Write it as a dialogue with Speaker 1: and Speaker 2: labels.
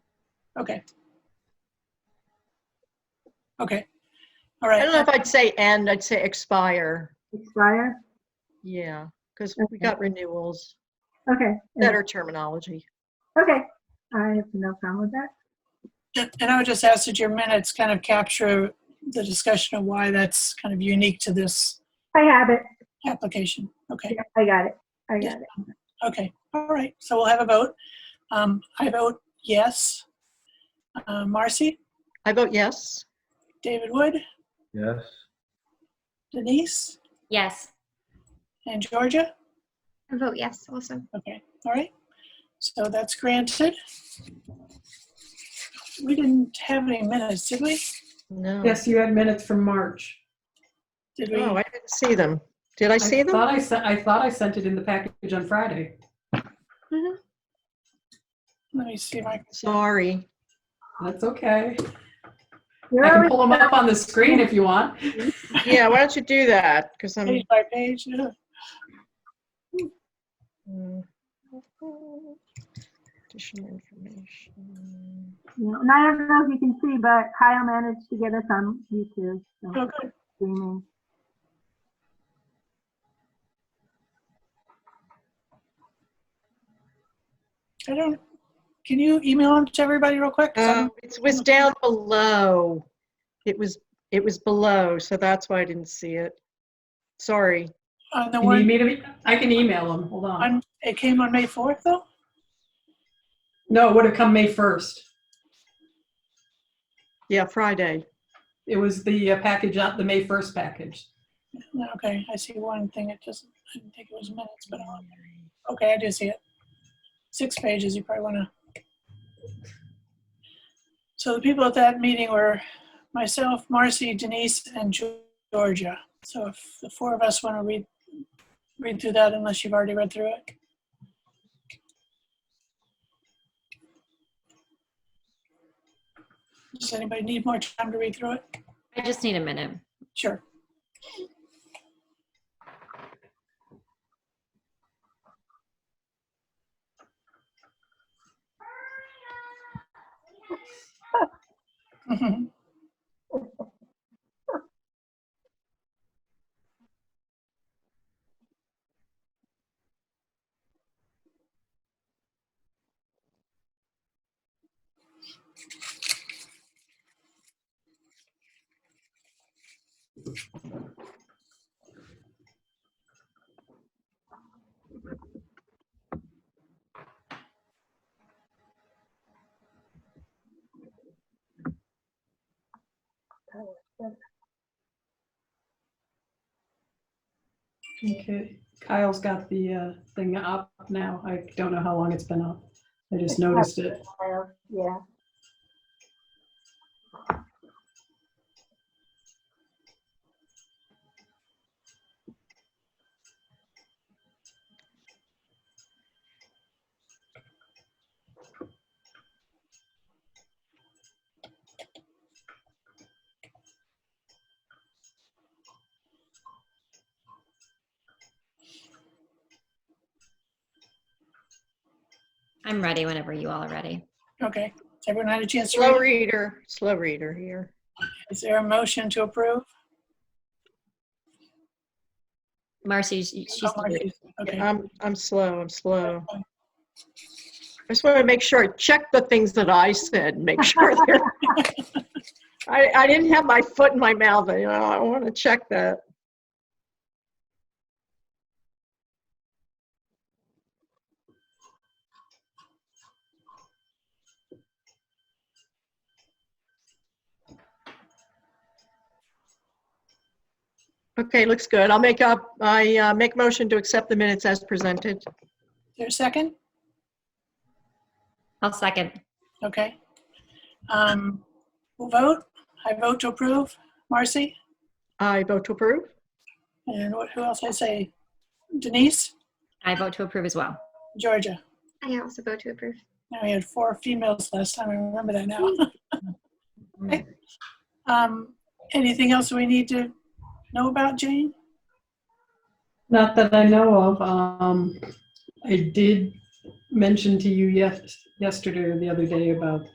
Speaker 1: Okay. Okay. All right.
Speaker 2: I don't know if I'd say end, I'd say expire.
Speaker 3: expire?
Speaker 2: Yeah, because we
Speaker 3: Okay.
Speaker 2: got renewals,
Speaker 3: Okay.
Speaker 2: better terminology.
Speaker 3: Okay, I have no problem with that.
Speaker 1: And and I would just ask that your minutes kind of capture the discussion of why that's kind of unique to this
Speaker 3: I have it.
Speaker 1: application. Okay,
Speaker 3: Yeah, I got it. I got it.
Speaker 1: okay, all right. So we'll have a vote. Um, I vote yes. Uh, Marcy,
Speaker 2: I vote yes.
Speaker 1: David Wood,
Speaker 4: Yes.
Speaker 1: Denise,
Speaker 5: Yes.
Speaker 1: and Georgia.
Speaker 5: I vote yes also.
Speaker 1: Okay, all right. So that's granted. We didn't have any minutes, did we?
Speaker 2: No.
Speaker 6: Yes, you had minutes from March.
Speaker 1: Did we?
Speaker 2: Oh, I didn't see them. Did I see them?
Speaker 6: Thought I sent, I thought I sent it in the package on Friday.
Speaker 1: Let me see if I,
Speaker 2: Sorry.
Speaker 6: That's okay.
Speaker 3: You're
Speaker 6: I can
Speaker 3: always-
Speaker 6: pull them up on the screen if you want.
Speaker 2: Yeah, why don't you do that? Because I'm.
Speaker 1: page by page. yeah.
Speaker 2: mm, Additional information.
Speaker 3: you know, And I don't know if you can see, but Kyle managed to get us on YouTube.
Speaker 1: Oh,
Speaker 3: So
Speaker 1: good.
Speaker 3: streaming.
Speaker 1: I don't, can you email them to everybody real quick? 'Cause I'm-
Speaker 2: Um, It was down below. It was, it was below, so that's why I didn't see it. Sorry.
Speaker 1: On the
Speaker 6: You need
Speaker 1: one,
Speaker 6: me to, I can email them, hold on.
Speaker 1: on, it came on May 4th, though?
Speaker 6: No, it would have come May 1st.
Speaker 2: Yeah, Friday.
Speaker 6: It was the uh, package, on the May 1st package.
Speaker 1: No, Okay, I see one thing, it just, I didn't think it was minutes, but, I'll- okay, I do see it. Six pages, you probably wanna. So the people at that meeting were myself, Marcy, Denise, and Ge- Georgia. So if the four of us wanna read, read through that unless you've already read through it. Does anybody need more time to read through it?
Speaker 5: I just need a minute.
Speaker 1: Sure. Mhm.
Speaker 6: Okay, Kyle's got the uh, thing up now. I don't know how long it's been up. I just noticed it.
Speaker 3: Kyle, Yeah.
Speaker 5: I'm ready whenever you all are ready.
Speaker 1: Okay, has everyone had a chance to
Speaker 2: Slow
Speaker 1: read? it?
Speaker 2: reader, slow reader here.
Speaker 1: Is there a motion to approve?
Speaker 5: Marcy, she- she's,
Speaker 1: Oh, Marcy. Okay,
Speaker 2: I'm, I'm slow, I'm slow. I just want to make sure, I check the things that I said, make sure they're. I, I didn't have my foot in my mouth, you know, I want to check that. Okay, looks good. I'll make up, I uh, make motion to accept the minutes as presented.
Speaker 1: there's a second?
Speaker 5: I'll second.
Speaker 1: Okay. Um, We'll vote. I vote to approve. Marcy?
Speaker 2: I vote to approve.
Speaker 1: And what- who else I say? Denise?
Speaker 5: I vote to approve as well.
Speaker 1: Georgia?
Speaker 7: I also vote to approve.
Speaker 1: Now we had four females last time. I remember that now. Okay. Um, anything else we need to know about, Jane?
Speaker 6: Not that I know of. Um, I did mention to you yes, yesterday or the other day about